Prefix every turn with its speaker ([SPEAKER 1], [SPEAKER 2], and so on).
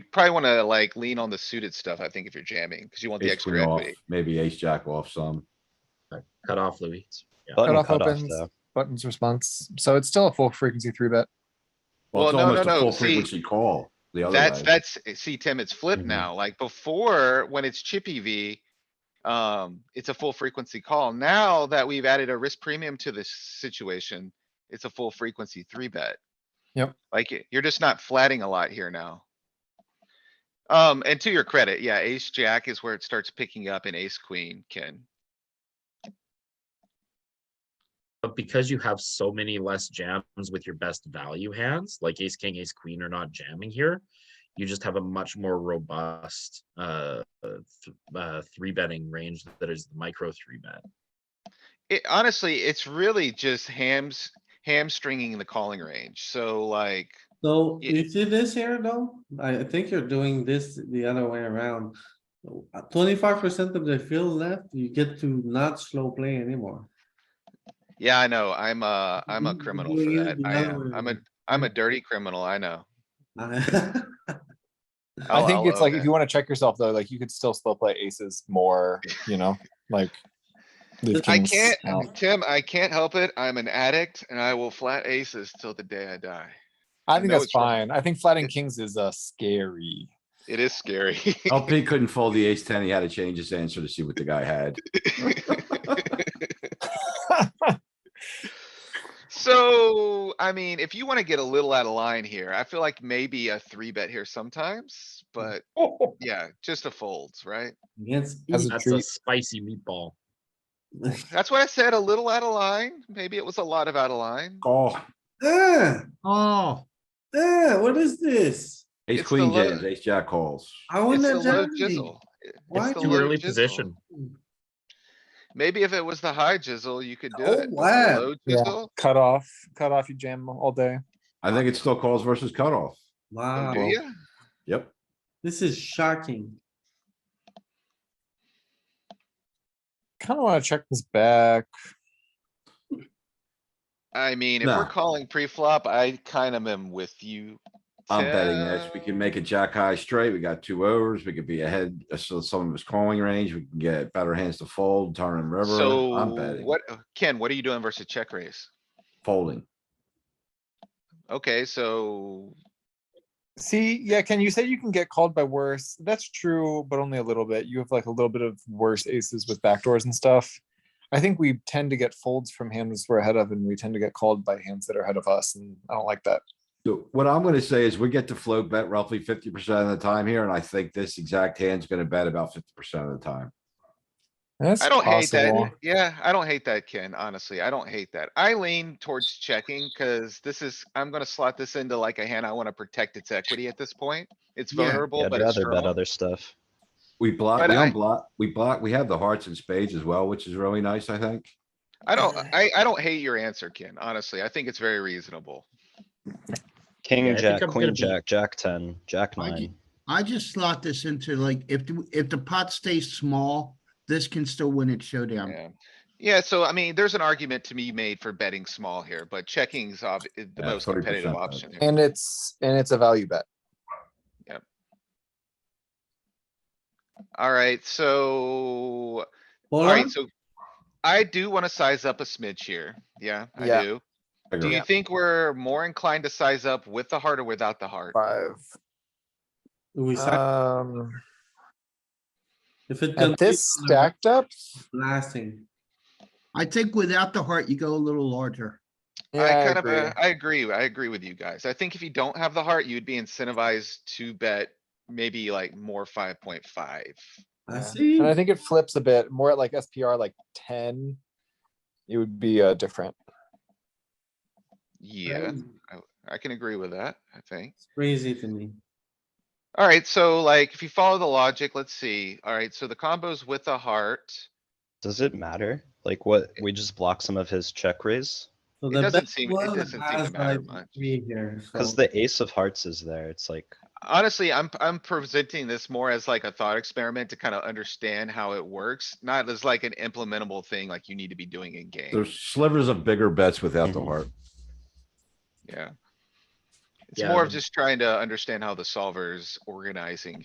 [SPEAKER 1] probably wanna like lean on the suited stuff, I think, if you're jamming, cause you want the
[SPEAKER 2] ace queen
[SPEAKER 1] extra
[SPEAKER 2] off,
[SPEAKER 1] equity.
[SPEAKER 2] maybe ace jack off some.
[SPEAKER 3] cut off Louis. Yeah.
[SPEAKER 4] Button
[SPEAKER 5] Cutoff
[SPEAKER 4] cutoff
[SPEAKER 5] opens.
[SPEAKER 4] stuff.
[SPEAKER 5] buttons response. So it's still a full frequency three bet.
[SPEAKER 1] Well,
[SPEAKER 2] Well, it's
[SPEAKER 1] no, no,
[SPEAKER 2] almost
[SPEAKER 1] no,
[SPEAKER 2] a full
[SPEAKER 1] see,
[SPEAKER 2] frequency call. The other Mm-hmm.
[SPEAKER 1] That's,
[SPEAKER 2] way.
[SPEAKER 1] that's, eh, see, Tim, it's flipped
[SPEAKER 4] Mhm.
[SPEAKER 1] now, like before, when it's chippy V. Um, it's a full frequency call. Now that we've added a risk premium to this situation, it's a full frequency three bet.
[SPEAKER 5] Yep.
[SPEAKER 1] Like, y- you're just not flatting a lot here now. Um, and to your credit, yeah, ace jack is where it starts picking up and ace queen, Ken.
[SPEAKER 3] But because you have so many less jams with your best value hands, like ace, king, ace, queen are not jamming here. You just have a much more robust uh, uh, th- uh three betting range that is the micro three bet.
[SPEAKER 1] It honestly, it's really just hams, hamstringing the calling range. So like,
[SPEAKER 6] So
[SPEAKER 1] Yeah.
[SPEAKER 6] you see this here though? I I think you're doing this the other way around. Twenty-five percent of the field left, you get to not slow play anymore.
[SPEAKER 1] yeah, I know, I'm a, I'm a
[SPEAKER 6] Mhm,
[SPEAKER 1] criminal
[SPEAKER 6] yeah,
[SPEAKER 1] for
[SPEAKER 6] yeah,
[SPEAKER 1] that.
[SPEAKER 6] you
[SPEAKER 1] I
[SPEAKER 6] know,
[SPEAKER 1] am, I'm a,
[SPEAKER 6] yeah.
[SPEAKER 1] I'm a dirty criminal, I know.
[SPEAKER 5] I
[SPEAKER 1] I'll-
[SPEAKER 5] think
[SPEAKER 1] I'll
[SPEAKER 5] it's like
[SPEAKER 1] own
[SPEAKER 5] if
[SPEAKER 1] Oh, it.
[SPEAKER 5] you want to check yourself though, like you could still slow play aces more, you know, like. leave
[SPEAKER 1] I
[SPEAKER 5] kings
[SPEAKER 1] can't,
[SPEAKER 5] out.
[SPEAKER 1] Tim, I can't help it. I'm an addict and I will flat aces till the day I die. I
[SPEAKER 5] I think
[SPEAKER 1] know
[SPEAKER 5] that's
[SPEAKER 1] it's wrong.
[SPEAKER 5] fine. I think flatting
[SPEAKER 1] It's-
[SPEAKER 5] kings is uh scary.
[SPEAKER 1] It is scary.
[SPEAKER 2] LP Oh, couldn't fold the ace ten. He had to change his answer to see what the guy had.
[SPEAKER 1] So, I mean, if you wanna get a little out of line here, I feel like maybe a three bet here sometimes, but yeah, just a folds, right?
[SPEAKER 6] Against.
[SPEAKER 5] As a
[SPEAKER 3] That's a
[SPEAKER 5] treat.
[SPEAKER 3] spicy meatball.
[SPEAKER 6] each-
[SPEAKER 1] That's why I said a little out of line. Maybe it was a lot of out of line.
[SPEAKER 2] Oh,
[SPEAKER 6] Ah,
[SPEAKER 3] Oh,
[SPEAKER 6] ah, what is this?
[SPEAKER 2] ace
[SPEAKER 1] It's the
[SPEAKER 2] queen
[SPEAKER 1] low-
[SPEAKER 2] jams, ace jack calls.
[SPEAKER 6] I
[SPEAKER 1] It's
[SPEAKER 6] wouldn't
[SPEAKER 1] the
[SPEAKER 6] have
[SPEAKER 1] low
[SPEAKER 6] jammed these.
[SPEAKER 1] jizzle. It-
[SPEAKER 6] Why
[SPEAKER 1] it's the
[SPEAKER 6] do
[SPEAKER 3] too
[SPEAKER 1] low
[SPEAKER 6] you-
[SPEAKER 3] early
[SPEAKER 1] jizzle.
[SPEAKER 3] position.
[SPEAKER 1] Maybe if it was the high jizzle, you could do
[SPEAKER 6] Oh,
[SPEAKER 1] it. but the
[SPEAKER 6] wow.
[SPEAKER 1] low
[SPEAKER 5] Yeah.
[SPEAKER 1] jizzle?
[SPEAKER 5] Cut off, cut off, you jam all day.
[SPEAKER 2] I think it's still calls versus cutoff.
[SPEAKER 1] Oh,
[SPEAKER 6] Wow,
[SPEAKER 1] Do ya?
[SPEAKER 2] Yep.
[SPEAKER 6] this is shocking.
[SPEAKER 5] Kind of want to check this back.
[SPEAKER 1] I mean, if we're
[SPEAKER 2] Nah.
[SPEAKER 1] calling pre-flop, I kind of am with you.
[SPEAKER 2] I'm betting this. We
[SPEAKER 1] Tim.
[SPEAKER 2] can make a jack high straight. We got two overs. We could be ahead. uh, So some of his calling range, we can get better hands to fold, turn and river.
[SPEAKER 1] So
[SPEAKER 2] I'm betting
[SPEAKER 1] what, uh, Ken, what are you doing versus check raise?
[SPEAKER 2] folding.
[SPEAKER 1] Okay, so
[SPEAKER 5] See, yeah, Ken, you said you can get called by worse. That's true, but only a little bit. You have like a little bit of worse aces with backdoors and stuff. I think we tend to get folds from hands we're ahead of, and we tend to get called by hands that are ahead of us, and I don't like that.
[SPEAKER 2] So what I'm gonna say is we get to float bet roughly fifty percent of the time here, and I think this exact hand's gonna bet about fifty percent of the time.
[SPEAKER 5] That's
[SPEAKER 1] I don't hate
[SPEAKER 5] possible.
[SPEAKER 1] that. Yeah, I don't hate that, Ken, honestly. I don't hate that. I lean towards checking because this is, I'm gonna slot this into like a hand. I wanna protect its equity at this point. It's
[SPEAKER 6] Yeah.
[SPEAKER 4] Yeah,
[SPEAKER 1] vulnerable,
[SPEAKER 4] I'd
[SPEAKER 1] but it's
[SPEAKER 4] rather bet
[SPEAKER 1] strong.
[SPEAKER 4] other stuff.
[SPEAKER 2] We block,
[SPEAKER 1] But
[SPEAKER 2] we
[SPEAKER 1] I-
[SPEAKER 2] unblock, we block, we have the hearts and spades as well, which is really nice, I think.
[SPEAKER 1] I don't, I, I don't hate your answer, Ken, honestly. I think it's very reasonable.
[SPEAKER 3] Yeah, I
[SPEAKER 4] King and
[SPEAKER 3] think
[SPEAKER 4] jack,
[SPEAKER 3] I'm gonna
[SPEAKER 4] queen,
[SPEAKER 3] be-
[SPEAKER 4] jack, jack ten, jack
[SPEAKER 7] I
[SPEAKER 4] nine.
[SPEAKER 7] I just slot this into like, if, the- if the pot stays small, this can still win at showdown.
[SPEAKER 1] Yeah. Yeah, so I mean, there's an argument to be made for betting small here, but checking's ob- is the
[SPEAKER 2] Yeah,
[SPEAKER 1] most competitive
[SPEAKER 2] 40% bet.
[SPEAKER 1] option. here.
[SPEAKER 5] And it's and it's a value bet.
[SPEAKER 1] Alright, so,
[SPEAKER 6] Polar,
[SPEAKER 1] alright, so I do wanna size up a smidge here. Yeah, I
[SPEAKER 5] Yeah.
[SPEAKER 1] do. Do
[SPEAKER 2] Figure
[SPEAKER 1] you
[SPEAKER 2] it.
[SPEAKER 1] think we're more inclined to size up with the heart or without the heart?
[SPEAKER 5] Five.
[SPEAKER 6] do we sack-
[SPEAKER 5] Um,
[SPEAKER 6] if it
[SPEAKER 5] Uh, at this
[SPEAKER 6] continues on the right,
[SPEAKER 5] stacked up,
[SPEAKER 6] Blasting.
[SPEAKER 7] I think without the heart, you go a little larger.
[SPEAKER 5] yeah,
[SPEAKER 1] I
[SPEAKER 5] I
[SPEAKER 1] kind of,
[SPEAKER 5] agree.
[SPEAKER 1] uh, I agree, I agree with you guys. I think if you don't have the heart, you'd be incentivized to bet maybe like more five point five.
[SPEAKER 6] I
[SPEAKER 5] Yeah.
[SPEAKER 6] see.
[SPEAKER 5] and I think it flips a bit more at like SPR like ten. It would be uh different.
[SPEAKER 1] Yeah, I can agree with that, I think.
[SPEAKER 6] It's Crazy to me.
[SPEAKER 1] Alright, so like, if you follow the logic, let's see. Alright, so the combos with the heart.
[SPEAKER 4] Does it matter? Like what, we just block some of his check raise?
[SPEAKER 6] So
[SPEAKER 1] It
[SPEAKER 6] the
[SPEAKER 1] doesn't
[SPEAKER 6] best
[SPEAKER 1] seem- it
[SPEAKER 6] one
[SPEAKER 1] doesn't seem to
[SPEAKER 6] has,
[SPEAKER 1] matter
[SPEAKER 6] like,
[SPEAKER 1] much.
[SPEAKER 6] Three here,
[SPEAKER 4] Cause
[SPEAKER 6] so-
[SPEAKER 4] the ace of hearts is there. It's like,
[SPEAKER 1] Honestly, I'm, I'm presenting this more as like a thought experiment to kind of understand how it works, not as like an implementable thing like you need to be doing in game.
[SPEAKER 2] There's slivers of bigger bets without the
[SPEAKER 4] Mhm.
[SPEAKER 2] heart.
[SPEAKER 1] Yeah. It's
[SPEAKER 3] Yeah,
[SPEAKER 1] more of
[SPEAKER 3] the-
[SPEAKER 1] just trying to understand how the solver's organizing